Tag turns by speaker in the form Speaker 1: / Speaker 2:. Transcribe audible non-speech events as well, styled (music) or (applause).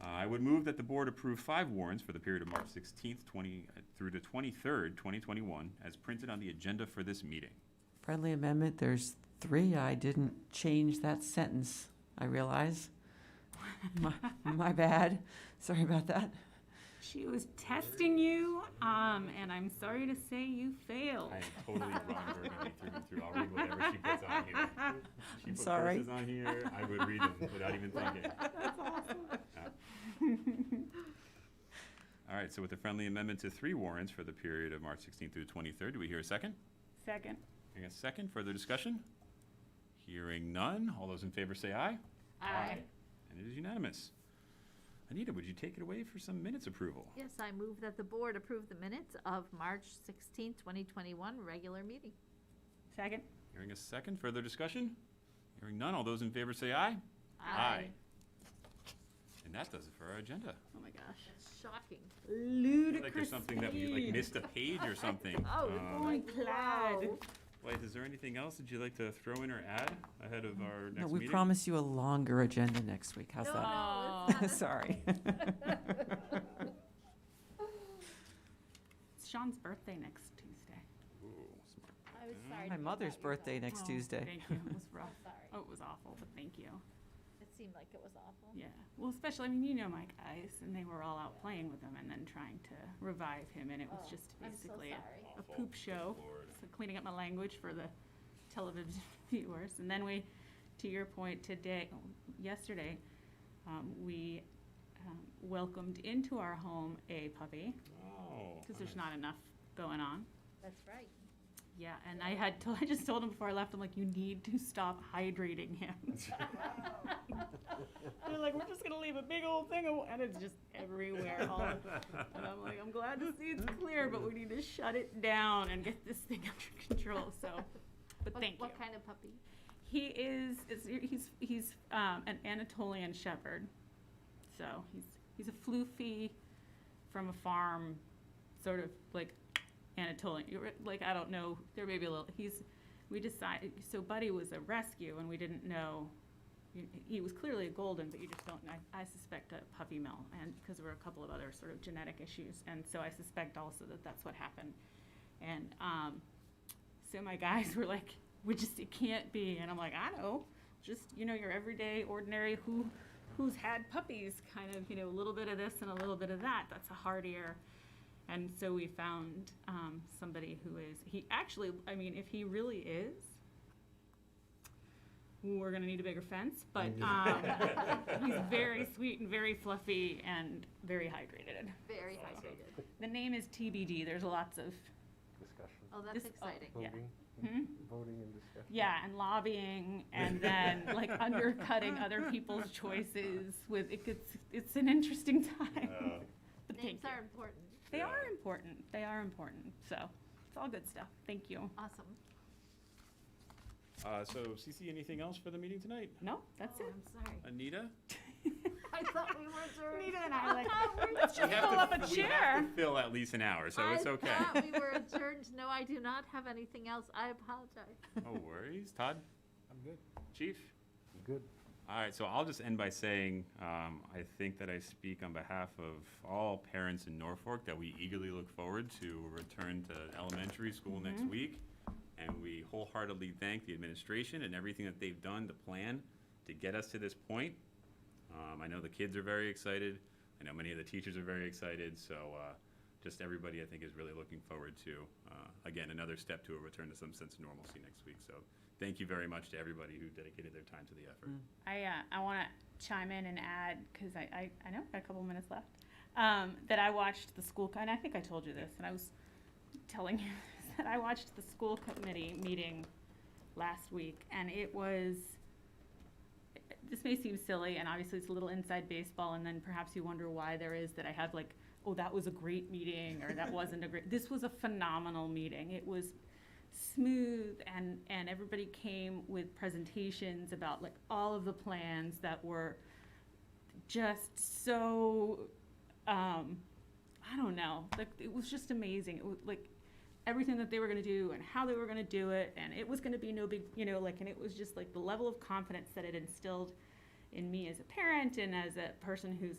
Speaker 1: Uh, I would move that the board approve five warrants for the period of March 16th, 20, uh, through the 23rd, 2021, as printed on the agenda for this meeting.
Speaker 2: Friendly amendment, there's three. I didn't change that sentence, I realize. My, my bad. Sorry about that.
Speaker 3: She was testing you, um, and I'm sorry to say you failed.
Speaker 1: I am totally wrong, Burgundy, through and through. I'll read whatever she puts on here. She put
Speaker 2: sorry.
Speaker 1: curses on here, I would read them without even thinking. Yeah. All right, so with the friendly amendment to three warrants for the period of March 16th through 23rd, do we hear a second?
Speaker 3: Second.
Speaker 1: Hearing a second, further discussion? Hearing none, all those in favor say aye.
Speaker 3: Aye.
Speaker 1: And it is unanimous. Anita, would you take it away for some minutes approval?
Speaker 4: Yes, I move that the board approve the minutes of March 16, 2021, regular meeting.
Speaker 3: Second.
Speaker 1: Hearing a second, further discussion? Hearing none, all those in favor say aye. And that does it for our agenda.
Speaker 3: Oh my gosh.
Speaker 4: That's shocking.
Speaker 1: I feel
Speaker 3: Ludicrous.
Speaker 1: like there's something that we like
Speaker 3: speed.
Speaker 1: missed a page or
Speaker 3: (laughs)
Speaker 1: something.
Speaker 4: Oh,
Speaker 1: Uh,
Speaker 4: it's
Speaker 3: Only
Speaker 4: like,
Speaker 3: plaid.
Speaker 4: whoa.
Speaker 1: Blythe, is there anything else that you'd like to throw in or add ahead of our next
Speaker 2: No,
Speaker 1: meeting?
Speaker 2: we promise you a longer agenda next week. How's
Speaker 4: No,
Speaker 2: that? (laughs)
Speaker 4: no, it's not a-
Speaker 2: Sorry.
Speaker 3: It's Sean's birthday next Tuesday.
Speaker 1: Ooh, smart.
Speaker 4: I
Speaker 3: Mm.
Speaker 4: was sorry
Speaker 2: My
Speaker 4: to
Speaker 2: mother's
Speaker 4: cut you off.
Speaker 2: birthday next
Speaker 3: Oh,
Speaker 2: Tuesday.
Speaker 3: Thank you. It was
Speaker 2: (laughs)
Speaker 3: rough. Oh,
Speaker 4: Sorry,
Speaker 3: it was awful, but thank you.
Speaker 4: it seemed like it was awful.
Speaker 3: Yeah. Well, especially, I mean, you know my guys, and they were all out playing with him and then trying to revive him, and it was
Speaker 4: Oh,
Speaker 3: just
Speaker 4: I'm so
Speaker 3: basically a
Speaker 4: sorry.
Speaker 3: a poop show. So cleaning up my language for the television (laughs) viewers. And then we, to your point, today, yesterday, um, we um, welcomed into our home a puppy
Speaker 1: Oh.
Speaker 3: because there's
Speaker 1: nice. (laughs)
Speaker 3: not enough going on.
Speaker 4: That's right.
Speaker 3: Yeah, and I had to, (laughs) I just told him before I left, I'm like, you need to stop hydrating him. (laughs) They're like, we're just gonna leave a big old thing, of-" and it's just everywhere. All the and I'm like, I'm glad to see it's clear, but we need to shut it down and get this thing under control. So, but
Speaker 4: What-
Speaker 3: thank you.
Speaker 4: What kind of puppy?
Speaker 3: He is, is he's he's um, an Anatolian Shepherd, so he's he's a floofy from a farm, sort of like Anatolian. you're- Like I don't know, there may be a little. He's we decided so Buddy was a rescue, and we didn't know. he- He was clearly a golden, but you just don't. I, I suspect a puppy mill, and because there were a couple of other sort of genetic issues, and so I suspect also that that's what happened. And um, so my guys (laughs) were like, "We just it can't be," and I'm like, "I know, just you know your everyday ordinary who, who's had puppies, kind of you know a little bit of this and a little bit of that. That's a hardier." And so we found um, somebody who is he actually. I mean, if he really is, we're gonna need a bigger fence. But um, he's very sweet and very fluffy and very hydrated.
Speaker 4: Very
Speaker 1: Awesome.
Speaker 4: hydrated.
Speaker 3: The name is TBD. There's lots of
Speaker 5: Discussion.
Speaker 4: Oh, that's
Speaker 3: This- oh.
Speaker 4: exciting.
Speaker 3: Yeah.
Speaker 5: Voting,
Speaker 3: hmm?
Speaker 5: voting and discussion.
Speaker 3: Yeah, and lobbying,
Speaker 1: (laughs)
Speaker 3: and then like undercutting other people's choices with it gets, it's an interesting (laughs) time.
Speaker 1: Uh,
Speaker 3: But thank
Speaker 4: Names
Speaker 3: you.
Speaker 4: are important.
Speaker 3: They
Speaker 1: Yeah.
Speaker 3: are important. They are important. So it's all good stuff. Thank you.
Speaker 4: Awesome.
Speaker 1: Uh, so CC, anything else for the meeting tonight?
Speaker 3: No, that's
Speaker 4: Oh,
Speaker 3: it.
Speaker 4: I'm sorry.
Speaker 1: Anita?
Speaker 4: I thought we were adjourned.
Speaker 3: Nita and
Speaker 4: (laughs)
Speaker 3: I like
Speaker 1: We
Speaker 3: let's just
Speaker 1: have
Speaker 3: pull
Speaker 1: to-
Speaker 3: up a
Speaker 1: We have
Speaker 3: chair.
Speaker 1: to fill at least an hour, so it's okay.
Speaker 4: I thought we were adjourned. No, I do not have anything else. I apologize.
Speaker 1: No worries. Todd?
Speaker 5: I'm good.
Speaker 1: Chief?
Speaker 5: I'm good.
Speaker 1: All right, so I'll just end by saying um, I think that I speak on behalf of all parents in Norfolk that we eagerly look forward to a return to elementary school next week. And we wholeheartedly thank the administration and everything that they've done to plan to get us to this point. Um, I know the kids are very excited. I know many of the teachers are very excited. So uh, just everybody, I think, is really looking forward to, uh, again, another step to a return to some sense of normalcy next week. So thank you very much to everybody who dedicated their time to the effort.
Speaker 3: I, uh, I want to chime in and add, because I, I, I know I've got a couple minutes left, um, that I watched the school, co- and I think I told you this, and I was telling (laughs) you that I watched the school committee meeting last week, and it was, this may seem silly, and obviously it's a little inside baseball, and then perhaps you wonder why there is that I have like, oh, that was a great meeting, or that wasn't a great, this was a phenomenal meeting. It was smooth and and everybody came with presentations about like all of the plans that were just so um i don't know like it was just amazing it was like everything that they were going to do and how they were going to do it and it was going to be no big you know like and it was just like the level of confidence that it instilled in me as a parent and as a person who's